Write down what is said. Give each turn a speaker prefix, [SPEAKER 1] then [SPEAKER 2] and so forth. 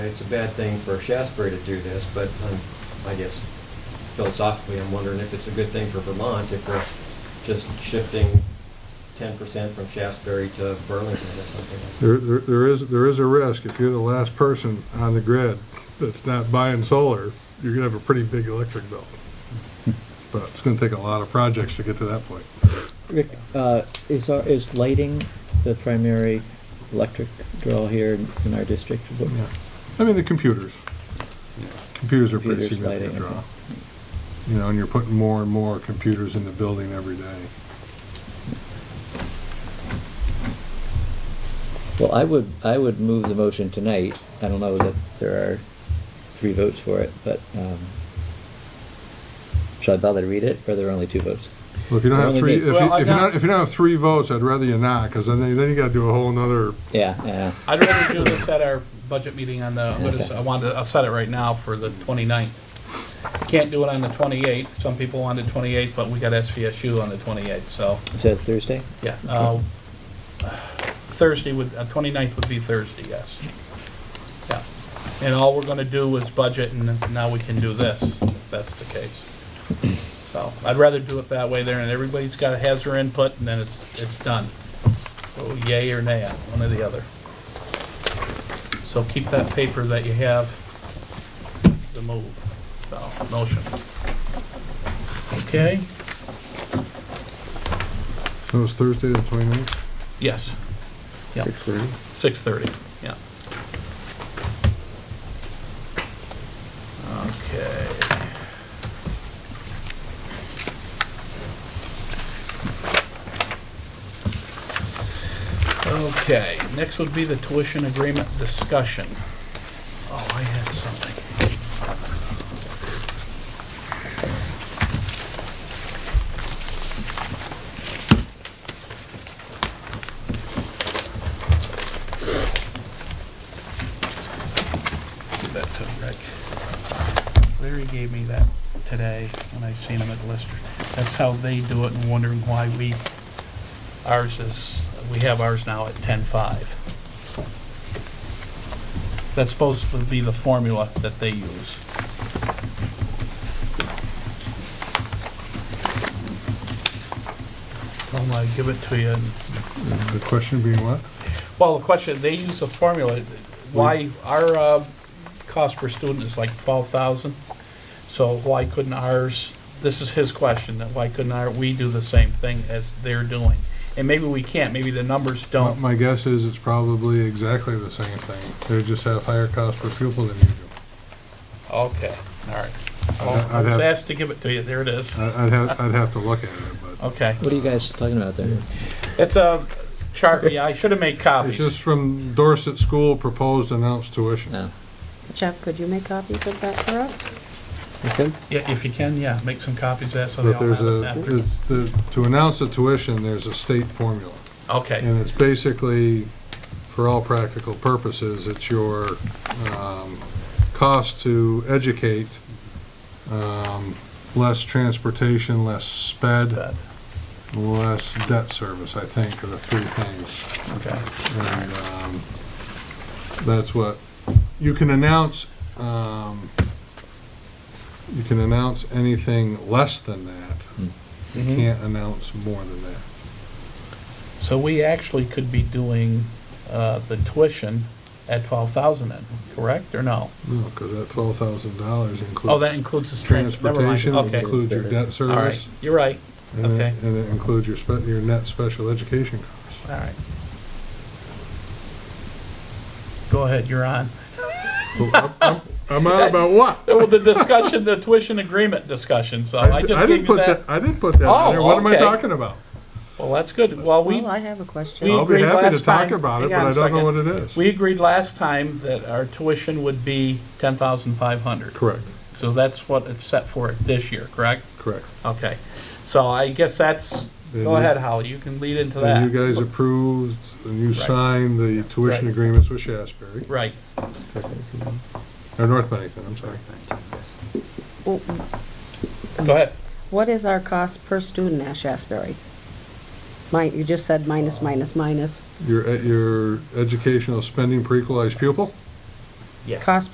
[SPEAKER 1] It's a bad thing for Shasbury to do this, but um, I guess philosophically, I'm wondering if it's a good thing for Vermont if we're just shifting ten percent from Shasbury to Burlington or something.
[SPEAKER 2] There, there- there is, there is a risk, if you're the last person on the grid that's not buying solar, you're gonna have a pretty big electric bill. But it's gonna take a lot of projects to get to that point.
[SPEAKER 3] Rick, uh, is our, is lighting the primary electric draw here in- in our district? What-
[SPEAKER 2] I mean, the computers, computers are pretty
[SPEAKER 3] Computers, lighting,
[SPEAKER 2] significant draw.
[SPEAKER 3] okay.
[SPEAKER 2] You know, and you're putting more and more computers in the building every day.
[SPEAKER 3] Well, I would, I would move the motion tonight. I don't know that there are three votes for it, but, um, should I bother to read it, or there are only two votes?
[SPEAKER 2] Well, if you don't have
[SPEAKER 3] Only
[SPEAKER 2] three, if
[SPEAKER 3] me.
[SPEAKER 2] you,
[SPEAKER 4] Well, I
[SPEAKER 2] if you
[SPEAKER 4] got-
[SPEAKER 2] don't, if you don't have three votes, I'd rather you not, because then, then you gotta do a whole nother,
[SPEAKER 3] Yeah, yeah,
[SPEAKER 4] I'd rather do this at our budget meeting on the, what is,
[SPEAKER 3] Okay.
[SPEAKER 4] I wanted, to- I'll set it right now for the 29th. Can't do it on the twenty-eighth, some people want the twenty-eighth, but we got SVSU on the twenty-eighth, so,
[SPEAKER 3] is that Thursday?
[SPEAKER 4] yeah. uh, Thursday would, uh, 29th would be Thursday, yes. Yeah, and all we're gonna do is budget, and then now we can do this, if that's the case. So, I'd rather do it that way there, and everybody's got, has their input, and then it's, it's done. So Yay or nay, on one or the other. So keep that paper that you have, the move, so, motion. Okay?
[SPEAKER 2] it was Thursday the twenty-ninth?
[SPEAKER 4] Yes, Yeah.
[SPEAKER 2] Six thirty.
[SPEAKER 4] six thirty, yeah. Okay. Okay, next would be the tuition agreement discussion. Oh, I had something. Give that to Rick. Larry gave me that today when I seen him at Lister. That's how they do it and wondering why we, ours is, we have ours now at ten-five. That's supposed to be the formula that they use. I'm gonna give it to you and
[SPEAKER 2] The question being what?
[SPEAKER 4] well, the question, they use a formula, why,
[SPEAKER 2] Mm.
[SPEAKER 4] our, uh, cost per student is like twelve thousand, so why couldn't ours, this is his question, that why couldn't our, we do the same thing as they're doing? And maybe we can't, maybe the numbers
[SPEAKER 2] My-
[SPEAKER 4] don't,
[SPEAKER 2] My guess is it's probably exactly the same thing. They just have higher cost per pupil than you do.
[SPEAKER 4] okay, all right.
[SPEAKER 2] I'd-
[SPEAKER 4] Well, I
[SPEAKER 2] I'd
[SPEAKER 4] was
[SPEAKER 2] have-
[SPEAKER 4] asked to give it to you, there it is,
[SPEAKER 2] I- I'd have, I'd have to look at it, but
[SPEAKER 4] okay.
[SPEAKER 3] What are you guys talking about there?
[SPEAKER 4] It's a chart, yeah, I should have made
[SPEAKER 2] it's
[SPEAKER 4] copies.
[SPEAKER 2] just from Dorset School proposed announced tuition.
[SPEAKER 3] No.
[SPEAKER 5] Jeff, could you make copies of that for us?
[SPEAKER 3] Okay.
[SPEAKER 4] Yeah, if you can, yeah, make some copies of that so they
[SPEAKER 2] But
[SPEAKER 4] all
[SPEAKER 2] there's
[SPEAKER 4] have it
[SPEAKER 2] a,
[SPEAKER 4] after.
[SPEAKER 2] it's the, to announce the tuition, there's a state formula.
[SPEAKER 4] Okay,
[SPEAKER 2] And it's basically, for all practical purposes, it's your um, cost to educate, um, less transportation, less sped,
[SPEAKER 4] That,
[SPEAKER 2] less debt service, I think, are the three things.
[SPEAKER 4] okay,
[SPEAKER 2] And um, that's what, you can announce, um, you can announce anything less than that.
[SPEAKER 3] Hmm.
[SPEAKER 2] You
[SPEAKER 4] Mm-hmm.
[SPEAKER 2] can't announce more than that.
[SPEAKER 4] So we actually could be doing uh, the tuition at twelve thousand then, correct, or no?
[SPEAKER 2] No, because that twelve thousand dollars includes.
[SPEAKER 4] Oh, that includes the trans, never mind,
[SPEAKER 2] Transportation, it
[SPEAKER 4] okay. All
[SPEAKER 2] includes your debt
[SPEAKER 4] right,
[SPEAKER 2] service.
[SPEAKER 4] you're right,
[SPEAKER 2] and it-
[SPEAKER 4] okay.
[SPEAKER 2] And it includes your spe, your net special education costs.
[SPEAKER 4] all right. Go ahead, you're on.
[SPEAKER 2] I'm out about what?
[SPEAKER 4] Well, the discussion, the tuition agreement discussion, so I just
[SPEAKER 2] didn't
[SPEAKER 4] gave you
[SPEAKER 2] put
[SPEAKER 4] that.
[SPEAKER 2] I didn't put that
[SPEAKER 4] Oh,
[SPEAKER 2] in there. What am I
[SPEAKER 4] okay.
[SPEAKER 2] talking about?
[SPEAKER 4] Well, that's good, well, we,
[SPEAKER 5] Well, Oh, I have a question.
[SPEAKER 4] We
[SPEAKER 2] I'll be
[SPEAKER 4] agreed
[SPEAKER 2] happy to
[SPEAKER 4] last
[SPEAKER 2] talk
[SPEAKER 4] time-
[SPEAKER 2] about it,
[SPEAKER 4] hang
[SPEAKER 2] but
[SPEAKER 4] on
[SPEAKER 2] I
[SPEAKER 4] a
[SPEAKER 2] don't know what it
[SPEAKER 4] second.
[SPEAKER 2] is.
[SPEAKER 4] we agreed last time that our tuition would be ten thousand five hundred.
[SPEAKER 2] Correct,
[SPEAKER 4] So that's what it's set for this year, correct?
[SPEAKER 2] correct.
[SPEAKER 4] Okay, so I guess that's,
[SPEAKER 2] Then
[SPEAKER 4] go
[SPEAKER 2] you-
[SPEAKER 4] ahead, Howard, you can lead into that.
[SPEAKER 2] And you guys approved, and you signed the tuition
[SPEAKER 4] Right.
[SPEAKER 2] agreements with Shasberry,
[SPEAKER 4] Right,
[SPEAKER 2] or North Bennington, I'm sorry.
[SPEAKER 5] Well,
[SPEAKER 4] go ahead.
[SPEAKER 5] Oh, What is our cost per student at Shasberry? Mine, you just said minus, minus, minus.
[SPEAKER 2] Your, e- your educational spending per equalized pupil?
[SPEAKER 6] Yes.
[SPEAKER 4] Cost